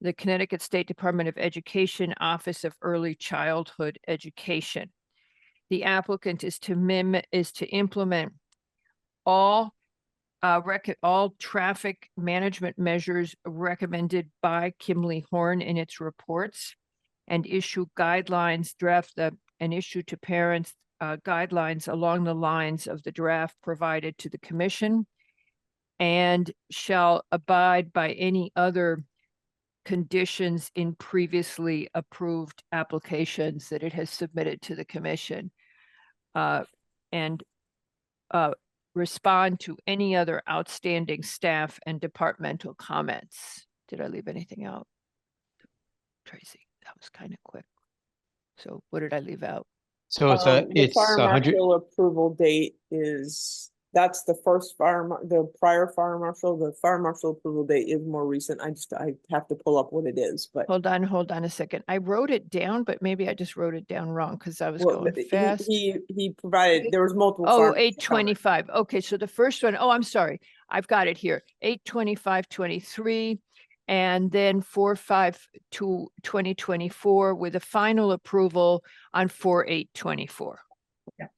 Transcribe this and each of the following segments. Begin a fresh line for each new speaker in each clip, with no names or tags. the Connecticut State Department of Education Office of Early Childhood Education. The applicant is to mim, is to implement all uh, rec, all traffic management measures recommended by Kimley Horn in its reports and issue guidelines, draft the, and issue to parents uh, guidelines along the lines of the draft provided to the commission and shall abide by any other conditions in previously approved applications that it has submitted to the commission. uh, And uh, respond to any other outstanding staff and departmental comments. Did I leave anything out? Tracy, that was kind of quick. So what did I leave out?
So it's a,
Um, the
Oh, it's
fire
a hundred,
marshal Approval date is, that's the first fire, mar- the prior fire marshal, the fire marshal approval date is more recent. I just, I have to pull up what it is, but.
Hold on, hold on a second. I wrote it down, but maybe I just wrote it down wrong because I was
well,
going
he-
fast.
He, he provided, there was multiple.
Oh,
fire
eight
marshal comments.
twenty-five. Okay, so the first one, oh, I'm sorry. I've got it here. Eight twenty-five, twenty-three. And then four, five to twenty twenty-four with a final approval on four, eight, twenty-four.
Okay.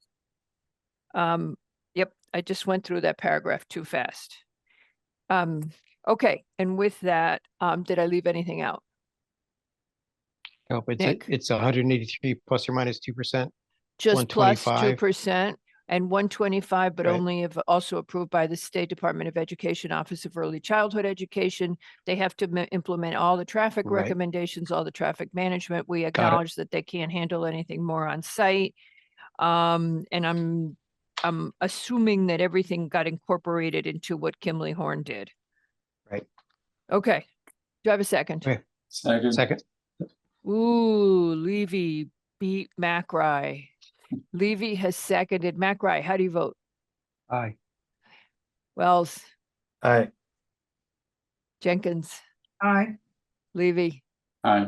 Um, yep, I just went through that paragraph too fast. Um, okay, and with that, um, did I leave anything out?
no, but oh, it's,
Nick.
a- it's a hundred and eighty-three plus or minus two percent.
Just plus two
125.
percent and one twenty-five, but
Right.
only if also approved by the State Department of Education Office of Early Childhood Education. They have to ma- implement all the traffic
Right.
recommendations, all the traffic management. We acknowledge that they can't handle anything more on site. Um, and I'm, I'm assuming that everything got incorporated into what Kimley Horn did.
Right.
Okay. Do I have a second?
Right.
Second.
Second,
Ooh, Levy beat McRae. Levy has seconded McRae. How do you vote?
aye.
Wells,
Aye.
Jenkins,
Aye.
Levy.
Aye.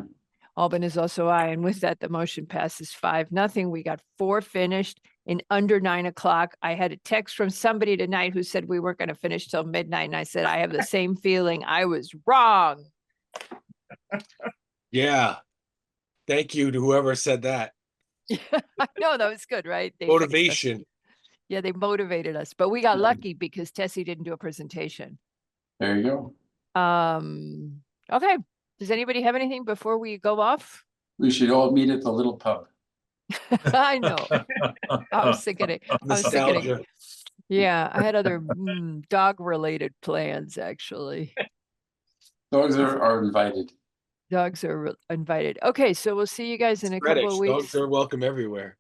Albin is also aye. And with that, the motion passes five, nothing. We got four finished in under nine o'clock. I had a text from somebody tonight who said we weren't going to finish till midnight. And I said, I have the same feeling. I was wrong.
Yeah. Thank you to whoever said that.
I know that was good, right? They fixed us.
Motivation.
Yeah, they motivated us, but we got
Mhm.
lucky because Tessie didn't do a presentation.
There you go.
Um, okay, does anybody have anything before we go off?
We should all meet at the little pub.
I know, I was thinking it, I was thinking it.
Nostalgia.
Yeah, I had other mm, dog-related plans, actually.
Dogs are, are invited.
Dogs are re- invited. Okay, so we'll see you guys in a couple
Credits.
of
Dogs
weeks.
are welcome everywhere.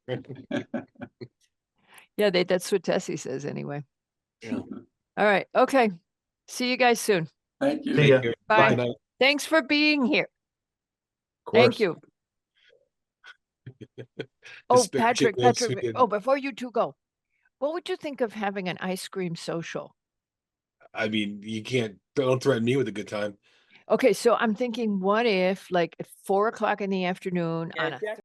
Yeah, they, that's what Tessie says anyway.
Yeah.
All right, okay. See you guys soon.
Thank you.
Thank
Yeah.
you. Good
Bye.
night. Of
Thanks for being here.
course.
Thank you. Oh,
Despite
Patrick,
chickens who
Patrick,
didn't-
oh, before you two go, what would you think of having an ice cream social?
I mean, you can't, don't threaten me with a good time.
Okay, so I'm thinking, what if like at four o'clock in the afternoon
Yeah,
on a
Jack